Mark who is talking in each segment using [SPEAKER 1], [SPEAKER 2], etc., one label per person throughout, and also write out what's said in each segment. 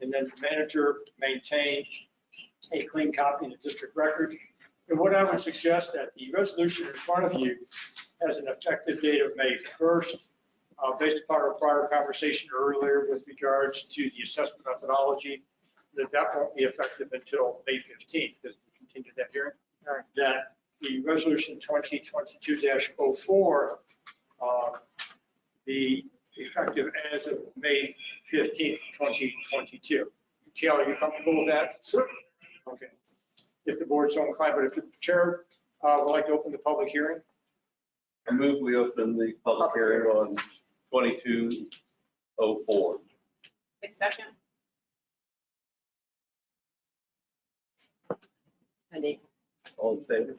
[SPEAKER 1] and then the manager maintain a clean copy in the district record. And what I would suggest that the resolution in front of you has an effective date of May 1st, uh, based upon our prior conversation earlier with regards to the assessment methodology, that that won't be effective until May 15th, because we continued that hearing. That the resolution 2022-04, uh, the effective as of May 15th, 2022. Kelly, you comfortable with that? Sure. Okay. If the board's so inclined, but if the chair uh, would like to open the public hearing,
[SPEAKER 2] I move we open the public hearing on 2204.
[SPEAKER 3] A second.
[SPEAKER 4] Any,
[SPEAKER 2] All in favor?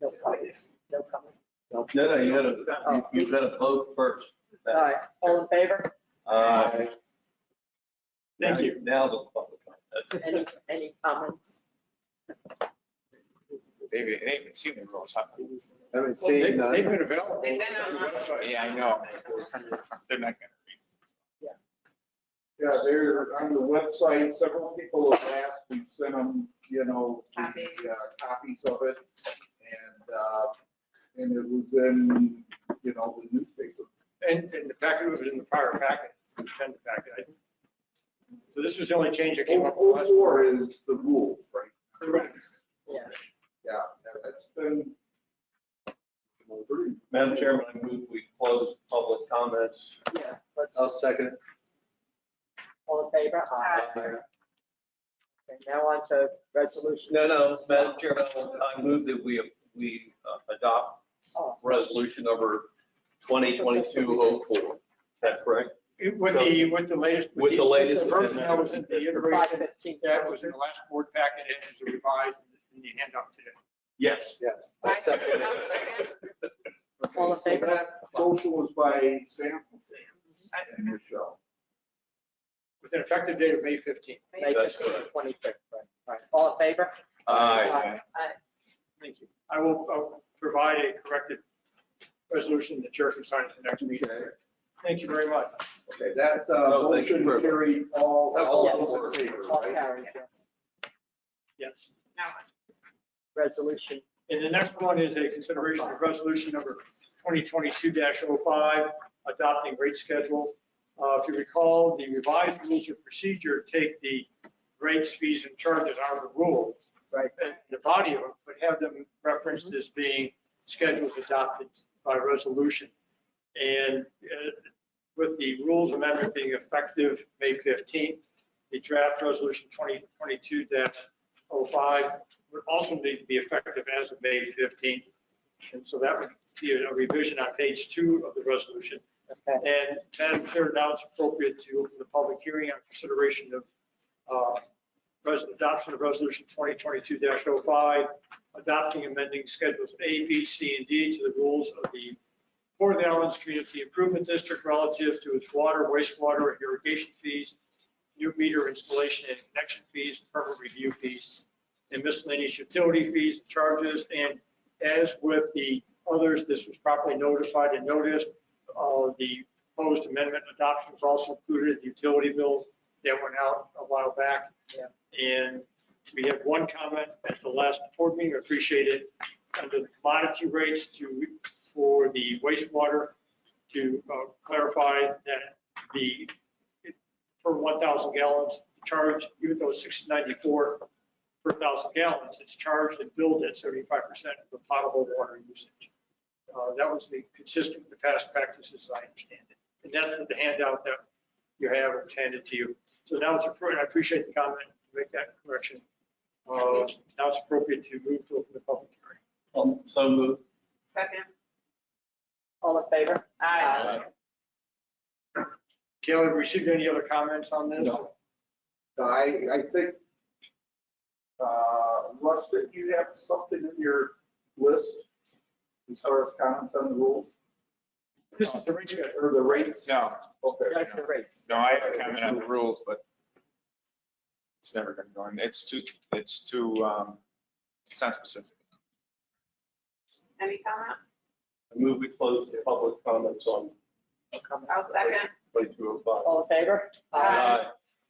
[SPEAKER 4] no comments, no comments.
[SPEAKER 2] No, no, you gotta, you- you gotta vote first.
[SPEAKER 4] All right, all in favor?
[SPEAKER 2] Aye.
[SPEAKER 1] thank you.
[SPEAKER 2] Now the public. comment.
[SPEAKER 4] Any, any comments?
[SPEAKER 5] They've, they haven't seen the rules, huh?
[SPEAKER 6] Haven't
[SPEAKER 1] Well, they-
[SPEAKER 6] seen
[SPEAKER 1] They've
[SPEAKER 6] none.
[SPEAKER 1] been available.
[SPEAKER 3] They've been
[SPEAKER 1] on the
[SPEAKER 3] online.
[SPEAKER 1] website.
[SPEAKER 5] Yeah, I know. They're not
[SPEAKER 6] Yeah, they're on the website. Several people have asked. We sent them, you know, the
[SPEAKER 3] Copies.
[SPEAKER 6] uh, copies of it. And, uh, and it was in, you know, the newspaper.
[SPEAKER 1] And and the packet was in the prior packet, the intended packet. I- So this was the only change that came up.
[SPEAKER 6] Oh,
[SPEAKER 1] last-
[SPEAKER 6] four is the rules, right?
[SPEAKER 1] Correct.
[SPEAKER 4] Yeah.
[SPEAKER 6] Yeah, yeah, that's been.
[SPEAKER 2] Madam Chairman, I move we close public comments.
[SPEAKER 4] Yeah, let's,
[SPEAKER 6] I'll second it.
[SPEAKER 4] all in favor? Aye. Okay, Now on to resolution.
[SPEAKER 2] No, no, Madam Chairman, I move that we, we uh, adopt
[SPEAKER 4] Oh,
[SPEAKER 2] resolution number 202204. Is that correct?
[SPEAKER 1] It- With the, with the latest.
[SPEAKER 2] With the latest
[SPEAKER 1] The version that was in the
[SPEAKER 4] Five
[SPEAKER 1] iteration
[SPEAKER 4] fifteen.
[SPEAKER 1] that was in the last board packet and is revised in the handout today.
[SPEAKER 2] Yes.
[SPEAKER 6] Yes.
[SPEAKER 3] I
[SPEAKER 6] I'll second it.
[SPEAKER 3] I'll second.
[SPEAKER 6] Okay,
[SPEAKER 4] All in
[SPEAKER 6] so
[SPEAKER 4] favor?
[SPEAKER 6] that Social was by Sam
[SPEAKER 3] I
[SPEAKER 6] and
[SPEAKER 3] second.
[SPEAKER 6] Michelle.
[SPEAKER 1] With an effective date of May 15th.
[SPEAKER 4] May
[SPEAKER 2] That's
[SPEAKER 4] fifteen,
[SPEAKER 2] correct.
[SPEAKER 4] twenty-three, right, right. All in favor?
[SPEAKER 5] Uh,
[SPEAKER 2] Aye.
[SPEAKER 1] Thank you. I will uh, provide a corrected resolution that chair can sign at the next meeting.
[SPEAKER 6] Okay.
[SPEAKER 1] Thank you very much.
[SPEAKER 6] Okay, that uh,
[SPEAKER 2] No, thank you
[SPEAKER 6] motion
[SPEAKER 2] for-
[SPEAKER 6] carried all,
[SPEAKER 2] That's
[SPEAKER 6] all
[SPEAKER 4] all
[SPEAKER 6] those in favor,
[SPEAKER 4] All
[SPEAKER 6] right?
[SPEAKER 4] carried, yes.
[SPEAKER 1] Yes.
[SPEAKER 3] Now,
[SPEAKER 4] Resolution,
[SPEAKER 1] And the next one is a consideration of resolution number 2022-05, adopting rate schedule. Uh, If you recall, the revised rules of procedure take the rates, fees, and charges out of the rule.
[SPEAKER 4] Right.
[SPEAKER 1] And The body of it, but have them referenced as being schedules adopted by resolution. And uh, with the rules amendment being effective May 15th, the draft resolution 2022-05 would also need to be effective as of May 15th. And so that would be a revision on page two of the resolution.
[SPEAKER 4] okay,
[SPEAKER 1] And Madam Chair, now it's appropriate to open the public hearing on consideration of uh, res- adoption of Resolution 2022-05, adopting amending Schedules A, B, C, and D to the rules of the Port of the Islands Community Improvement District relative to its water, wastewater, and irrigation fees, new meter installation and connection fees, permit review fees, and miscellaneous utility fees and charges. And as with the others, this was properly notified and noticed. Uh, The proposed amendment adoption was also included, in the utility bills that went out a while back.
[SPEAKER 4] Yeah.
[SPEAKER 1] And we had one comment at the last board meeting, appreciate it, under the commodity rates to, for the wastewater, to uh, clarify that the, per 1,000 gallons charge, even though it's 694 per 1,000 gallons, it's charged and billed at 75% of the potable water usage. Uh, That was the consistent with the past practices, as I understand it. And that's the handout that you have it's handed to you. So now it's appropriate, I appreciate the comment, make that correction. Uh, Now it's appropriate to move to open the public hearing.
[SPEAKER 2] Um, So moved.
[SPEAKER 3] second.
[SPEAKER 4] all in favor?
[SPEAKER 3] Aye.
[SPEAKER 1] Kayla, have you received any other comments on this?
[SPEAKER 6] No. I, I think, uh, Rustin, you have something in your list as far as comments on the rules Uh,
[SPEAKER 1] This is the rate schedule.
[SPEAKER 6] or the rates?
[SPEAKER 5] No,
[SPEAKER 6] Okay.
[SPEAKER 4] That's the rates.
[SPEAKER 5] no, I have a comment on the rules, but it's never gonna go in. It's too, it's too, um, it's not specific.
[SPEAKER 3] Any comment?
[SPEAKER 2] I move we close the public comments on
[SPEAKER 4] No comments.
[SPEAKER 3] I'll second.
[SPEAKER 2] 2205.
[SPEAKER 4] All in favor?
[SPEAKER 3] Aye.
[SPEAKER 2] Aye.